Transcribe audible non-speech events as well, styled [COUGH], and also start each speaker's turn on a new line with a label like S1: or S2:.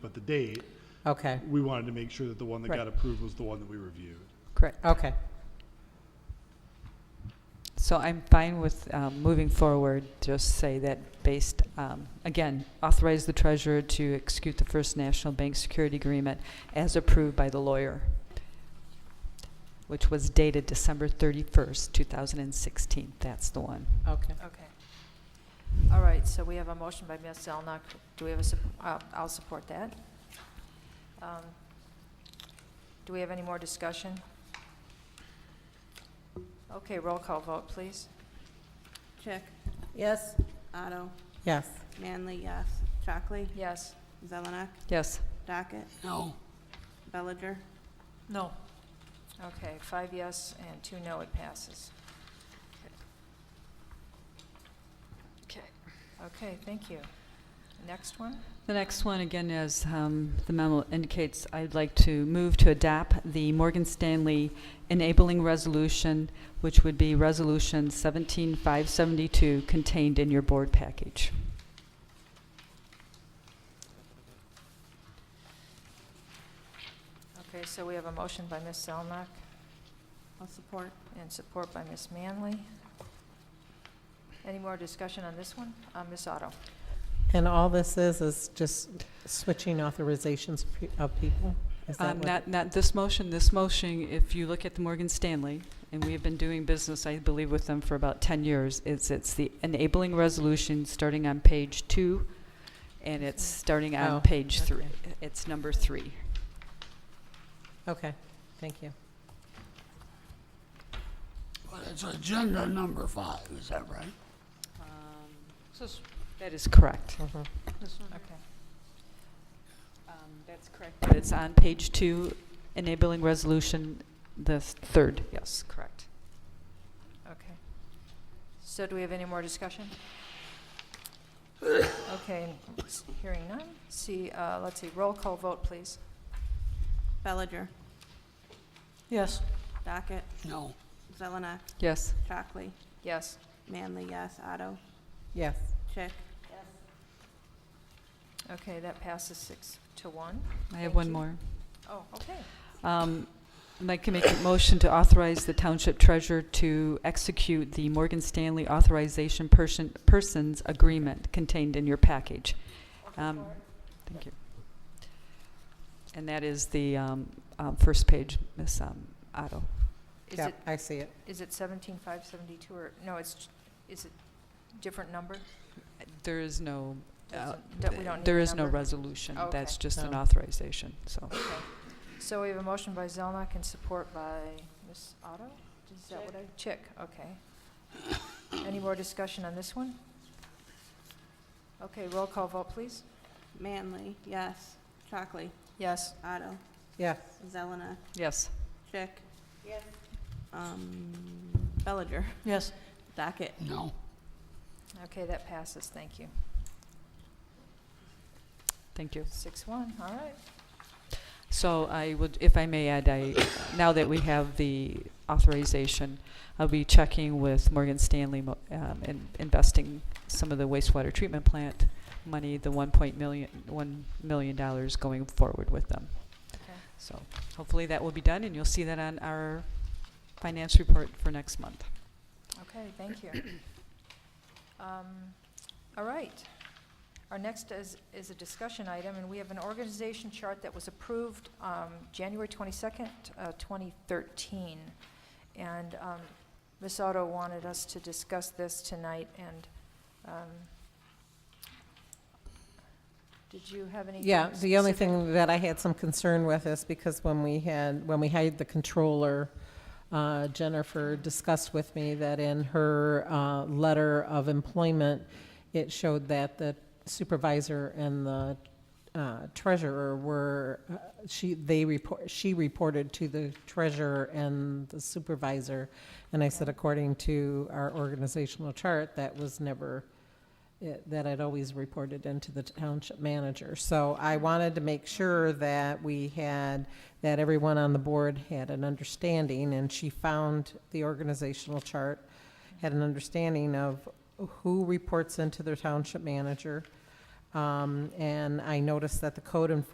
S1: but the date,
S2: Okay,
S1: we wanted to make sure that the one that
S2: Right.
S1: got approved was the one that we reviewed.
S3: Correct.
S2: okay.
S3: So I'm fine with um, moving forward, just say that based, um, again, authorize the treasurer to execute the First National Bank Security Agreement as approved by the lawyer, which was dated December 31st, 2016. That's the one.
S2: Okay.
S4: Okay. All right, so we have a motion by Ms. Zelnok. Do we have a, sup- uh, I'll support that. Um, Do we have any more discussion? Okay, roll call vote, please.
S5: Chick? Yes. Otto?
S2: Yes,
S5: Manley, yes. Chockley?
S4: Yes?
S5: Zelenak?
S3: Yes.
S5: Docket? No. Bellinger?
S4: No. Okay, five yes and two no, it passes. Okay. Okay, thank you. Next one?
S3: The next one, again, as um, the memo indicates, I'd like to move to adopt the Morgan Stanley enabling resolution, which would be Resolution 17572, contained in your board package.
S4: Okay, so we have a motion by Ms. Zelnok
S5: I'll support.
S4: and support by Ms. Manley. Any more discussion on this one? Uh, Ms. Otto?
S6: And all this is, is just switching authorizations of pe- of people? Is that
S3: Um,
S6: what-
S3: Not, not this motion, this motion, if you look at the Morgan Stanley, and we have been doing business, I believe, with them for about 10 years, it's, it's the enabling resolution, starting on page two, and it's starting
S6: Oh,
S3: on page three.
S6: okay.
S3: It's number three.
S6: Okay, thank you.
S7: But it's agenda number five, is that right?
S6: Um,
S3: That is correct.
S6: Mhm.
S4: Okay.
S3: Um, That's correct. But it's on page two, enabling resolution, the third, yes, correct.
S4: Okay. So do we have any more [COUGHS] discussion? Okay, s- hearing none. See, uh, let's see, roll call vote, please.
S5: Bellinger?
S3: Yes.
S5: Docket?
S7: No.
S5: Zelenak?
S3: Yes.
S5: Chockley?
S4: Yes.
S5: Manley, yes. Otto?
S6: Yes,
S5: Chick?
S4: Okay, that passes six to one.
S3: I
S4: Thank
S3: have one
S4: you.
S3: more.
S4: Oh, okay.
S3: Um, I'd like to make a motion to authorize the township treasurer to execute the Morgan Stanley authorization person, persons agreement contained in your package. Um, Thank you. And that is the um, um, first page, Ms. um, Otto.
S4: Is
S6: yeah,
S4: it,
S6: I see it.
S4: is it seventeen five seventy-two or, no, it's, is it different number?
S3: There is no, uh,
S4: Doesn't- that we don't need
S3: there
S4: a
S3: is no
S4: number?
S3: resolution.
S4: Okay.
S3: That's just an
S6: No.
S3: authorization, so.
S4: Okay. So we have a motion by Zelnok and support by Ms. Otto? Is that what I, Chick, okay. Any more discussion on this one? Okay, roll call vote, please.
S5: Manley, yes. Chockley?
S4: Yes.
S5: Otto?
S6: Yes,
S5: Zelenak?
S3: Yes.
S5: Chick? Yes. Um, Bellinger?
S3: Yes.
S5: Docket?
S7: No.
S4: Okay, that passes, thank you.
S3: Thank you.
S4: Six one, all right.
S3: So I would, if I may add, I, now that we have the authorization, I'll be checking with Morgan Stanley mo- um, and investing some of the wastewater treatment plant money, the one point million, one million dollars going forward with them.
S4: Okay.
S3: So hopefully that will be done, and you'll see that on our finance report for next month.
S4: Okay,
S6: [CLEARS THROAT]
S4: thank you. Um, All right. Our next is, is a discussion item, and we have an organization chart that was approved um, January 22nd, uh, 2013. And um, Ms. Otto wanted us to discuss this tonight, and um, did you have any?
S6: yeah, the only thing that I had some concern with is because when we had, when we hired the controller, uh, Jennifer discussed with me that in her uh, letter of employment, it showed that the supervisor and the uh, treasurer were, uh, she, they report, she reported to the treasurer and the supervisor. And I said, according to our organizational chart, that was never, it- eh, that I'd always reported into the township manager. So I wanted to make sure that we had, that everyone on the board had an understanding, and she found the organizational chart, had an understanding of who reports into their township manager. Um, And I noticed that the code enforcement